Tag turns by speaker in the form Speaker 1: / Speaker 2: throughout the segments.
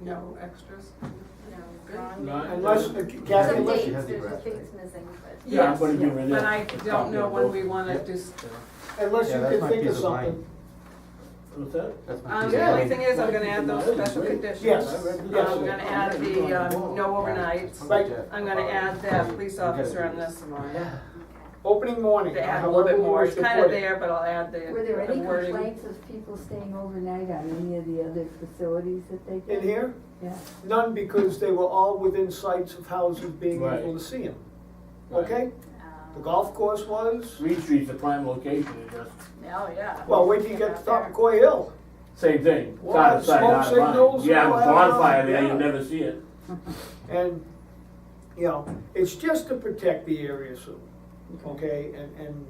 Speaker 1: No extras?
Speaker 2: Ron?
Speaker 3: Ron?
Speaker 4: Unless, the Kathy,
Speaker 2: Some
Speaker 4: unless you
Speaker 2: dates,
Speaker 4: have the
Speaker 2: there's
Speaker 4: graphic.
Speaker 2: things missing, but.
Speaker 4: Yeah, I'm gonna
Speaker 1: Yes,
Speaker 4: give
Speaker 1: But
Speaker 4: her that.
Speaker 1: I don't know when we wanna
Speaker 4: Yep.
Speaker 1: just,
Speaker 4: Unless
Speaker 3: Yeah,
Speaker 4: you
Speaker 3: that's
Speaker 4: can
Speaker 3: my
Speaker 4: think of
Speaker 3: piece of mine.
Speaker 4: something. What's that?
Speaker 3: That's my
Speaker 1: um,
Speaker 3: piece of
Speaker 1: the only
Speaker 3: mind.
Speaker 1: thing is, I'm gonna add those special conditions. Um,
Speaker 4: Yes.
Speaker 1: I'm
Speaker 4: Yes.
Speaker 1: gonna add the, um, no overnights,
Speaker 4: Right.
Speaker 1: I'm gonna add that police officer on this one.
Speaker 3: Yeah.
Speaker 4: Opening morning,
Speaker 1: To add a little bit
Speaker 4: however we
Speaker 1: more,
Speaker 4: wish
Speaker 1: it's
Speaker 4: to
Speaker 1: kinda
Speaker 4: put it.
Speaker 1: there, but I'll add the
Speaker 5: Were there
Speaker 1: the
Speaker 5: any
Speaker 1: wording.
Speaker 5: complaints of people staying overnight on any of the other facilities that they did?
Speaker 4: In here,
Speaker 5: Yeah.
Speaker 4: none because they were all within sights of houses being
Speaker 6: Right.
Speaker 4: able to see them,
Speaker 6: Right.
Speaker 1: Um,
Speaker 4: okay? The golf course was,
Speaker 6: Reed Street's a prime location, it just,
Speaker 1: Oh, yeah.
Speaker 4: well, wait till you get to top of Coy Hill.
Speaker 6: same thing,
Speaker 4: Well,
Speaker 6: side of sight, out
Speaker 4: smoke
Speaker 6: of mind.
Speaker 4: signals,
Speaker 6: You have a
Speaker 4: all that around,
Speaker 6: bonfire there,
Speaker 4: yeah.
Speaker 6: you never see it.
Speaker 4: And, you know, it's just to protect the area, so, okay, and, and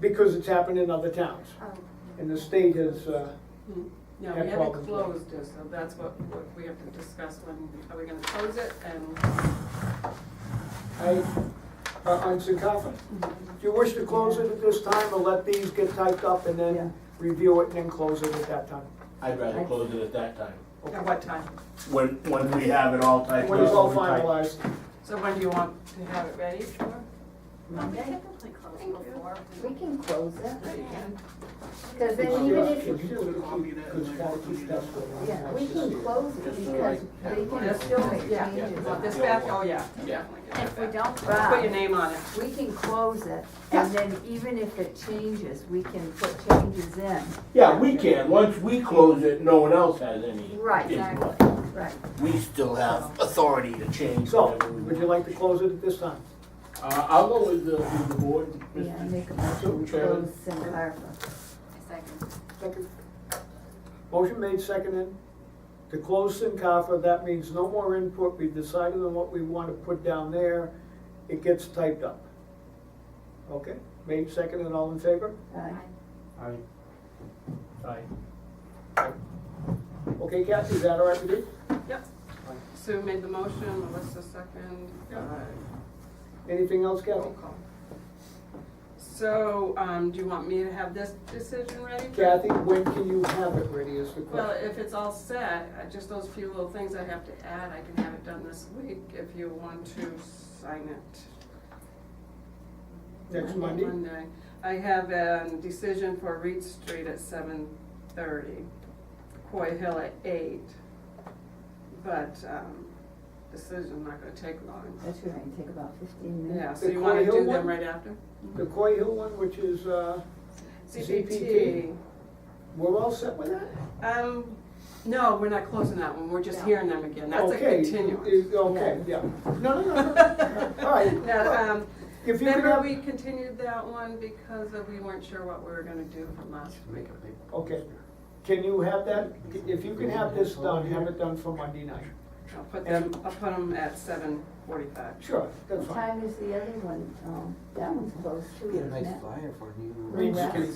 Speaker 4: because it's happened in other towns.
Speaker 2: um,
Speaker 4: And the state has, uh,
Speaker 1: No,
Speaker 4: Yeah,
Speaker 1: we haven't
Speaker 4: problems.
Speaker 1: closed it, so that's what, what we have to discuss when, are we gonna close it and?
Speaker 4: I, uh, I'm so confident. Do you wish to close it at this time or let these get typed up and
Speaker 5: Yeah.
Speaker 4: then review it and then close it at that time?
Speaker 6: I'd rather
Speaker 5: Right.
Speaker 6: close it at that time,
Speaker 1: At what time?
Speaker 6: when, when we have it all typed up.
Speaker 4: When it's all
Speaker 6: and typed.
Speaker 4: finalized,
Speaker 1: So when do you want to have it ready for?
Speaker 5: we
Speaker 2: typically close before.
Speaker 5: We can close it, because
Speaker 4: It's
Speaker 5: then even
Speaker 4: just- it's
Speaker 5: if,
Speaker 4: just to keep- it's gotta keep that for a long
Speaker 5: yeah,
Speaker 4: time
Speaker 5: we
Speaker 4: to see
Speaker 5: can
Speaker 4: it.
Speaker 5: close it because they can still
Speaker 1: Yeah,
Speaker 5: make
Speaker 1: yeah.
Speaker 5: changes.
Speaker 1: Want this back? Oh, yeah. definitely get that
Speaker 2: If we
Speaker 1: back.
Speaker 2: don't,
Speaker 1: Put your
Speaker 5: But
Speaker 1: name on it.
Speaker 5: we can close it, and then even if it changes, we can put changes in.
Speaker 6: Yeah, we can, once we close it, no one else has any.
Speaker 5: Right,
Speaker 6: input.
Speaker 5: exactly, right.
Speaker 6: We still have authority to change
Speaker 4: So,
Speaker 6: whatever we
Speaker 4: would you
Speaker 6: want.
Speaker 4: like to close it at this time?
Speaker 6: Uh, I'll go with the, with the board,
Speaker 5: Yeah, I
Speaker 6: Mr.
Speaker 5: make a motion, we
Speaker 6: Chairman.
Speaker 5: close Santa Barbara.
Speaker 4: Second. Motion made, seconded. To close Sincarfa, that means no more input, we've decided on what we want to put down there, it gets typed up. Okay, made, seconded, all in favor?
Speaker 5: Aye.
Speaker 3: I-
Speaker 6: Aye.
Speaker 4: Okay, Kathy, is that all right with you?
Speaker 1: Yep. Sue made the motion, Melissa second.
Speaker 4: Yeah.
Speaker 1: Uh,
Speaker 4: Anything else, Kathy?
Speaker 1: Roll call. So, um, do you want me to have this decision ready?
Speaker 4: Kathy, when can you have it ready is the
Speaker 1: Well,
Speaker 4: question.
Speaker 1: if it's all set, uh, just those few little things I have to add, I can have it done this week if you want to sign it.
Speaker 4: Next Monday?
Speaker 1: Monday. I have a decision for Reed Street at seven thirty, Coy Hill at eight. But, um, decision's not gonna take long.
Speaker 5: That's gonna take about fifteen minutes.
Speaker 1: Yeah, so
Speaker 4: The
Speaker 1: you wanna
Speaker 4: Coy Hill
Speaker 1: do them
Speaker 4: one?
Speaker 1: right after?
Speaker 4: The Coy Hill one, which is, uh,
Speaker 1: CPT.
Speaker 4: we're all set with that?
Speaker 1: Um, no, we're not closing that one, we're just hearing them again, that's a
Speaker 4: Okay,
Speaker 1: continuum.
Speaker 4: is- Okay, yeah. No, no, no, no, all right.
Speaker 1: No, um,
Speaker 4: If you could
Speaker 1: remember
Speaker 4: have,
Speaker 1: we continued that one because of we weren't sure what we were gonna do from last week.
Speaker 4: okay, can you have that, if you can have this done, have it done for Monday night?
Speaker 1: I'll put them, I'll put them at seven forty-five.
Speaker 4: Sure, that's
Speaker 5: What
Speaker 4: fine.
Speaker 5: time is the other one? Um, that one's close too,
Speaker 3: Get a
Speaker 5: isn't
Speaker 3: nice
Speaker 5: it?
Speaker 3: flyer for you.
Speaker 4: Reed
Speaker 5: Well,
Speaker 4: Street,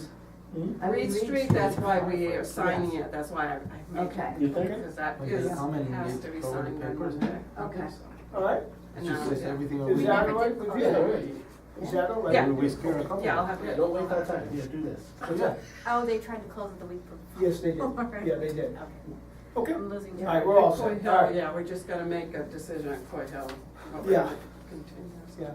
Speaker 2: Hmm?
Speaker 5: I mean,
Speaker 1: Reed Street, that's why we are signing it, that's why I, I made
Speaker 5: Okay.
Speaker 1: it.
Speaker 6: You think?
Speaker 1: Because that
Speaker 3: Okay.
Speaker 1: is,
Speaker 3: How many
Speaker 1: has
Speaker 3: you
Speaker 1: to be
Speaker 3: covered
Speaker 1: signed on
Speaker 3: papers?
Speaker 1: Monday.
Speaker 5: Okay.
Speaker 4: all right,
Speaker 1: And
Speaker 3: Just
Speaker 1: now-
Speaker 3: list everything over.
Speaker 4: is that all
Speaker 2: never
Speaker 4: right
Speaker 2: did
Speaker 4: with
Speaker 2: call
Speaker 4: you?
Speaker 6: Yeah,
Speaker 4: Is
Speaker 6: right.
Speaker 4: that all right?
Speaker 1: Yeah.
Speaker 3: We waste your-
Speaker 1: Yeah, I'll have
Speaker 6: Yeah,
Speaker 1: it.
Speaker 6: don't waste our time, yeah, do this.
Speaker 4: Yeah,
Speaker 2: Oh, they tried to close it the week before.
Speaker 4: Yes, they did, yeah, they did,
Speaker 2: Okay.
Speaker 4: okay,
Speaker 2: I'm losing.
Speaker 4: all right, we're all
Speaker 1: Coy
Speaker 4: set,
Speaker 1: Hill,
Speaker 4: all right,
Speaker 1: yeah, we're just gonna make a decision on Coy Hill. what we're
Speaker 4: Yeah.
Speaker 1: gonna continue.
Speaker 4: yeah.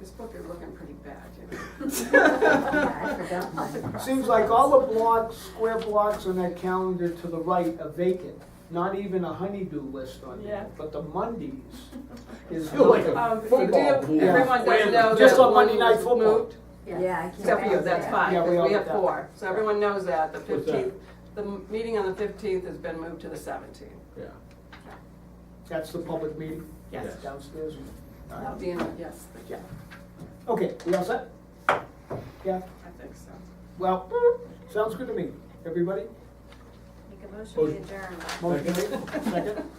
Speaker 1: This book is looking pretty bad, you know.
Speaker 5: Yeah, I forgot mine.
Speaker 4: Seems like all the blocks, square blocks on that calendar to the right are vacant. Not even a honeydew list on
Speaker 1: Yeah.
Speaker 4: there, but the Mondays is.
Speaker 6: Feel like a-
Speaker 1: Um, you do,
Speaker 6: Football pool.
Speaker 1: everyone does know
Speaker 4: Just
Speaker 1: that
Speaker 4: on
Speaker 1: one
Speaker 4: Monday night
Speaker 1: was
Speaker 4: football.
Speaker 1: moved,
Speaker 5: Yeah, I can't.
Speaker 1: except for you, that's fine,
Speaker 4: Yeah, we
Speaker 1: because
Speaker 4: all
Speaker 1: we have
Speaker 4: got that.
Speaker 1: four, so everyone knows that, the
Speaker 6: What's that?
Speaker 1: fifteenth, the m- meeting on the fifteenth has been moved to the seventeenth.
Speaker 6: Yeah.
Speaker 4: That's the public meeting.
Speaker 1: Yes.
Speaker 6: Yes.
Speaker 4: Downstairs. All right.
Speaker 1: Deanna, yes, thank you.
Speaker 4: Okay, we all set? Yeah,
Speaker 1: I think so.
Speaker 4: well, sounds good to me. Everybody?
Speaker 2: Make a motion
Speaker 4: Oh.
Speaker 2: to adjourn.
Speaker 4: Motion made, second?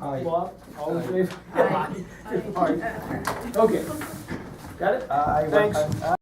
Speaker 3: Uh,
Speaker 4: Bob, all in favor?
Speaker 5: Aye.
Speaker 4: Aye. Okay. Got it?
Speaker 3: I- I-
Speaker 4: Thanks.
Speaker 3: I-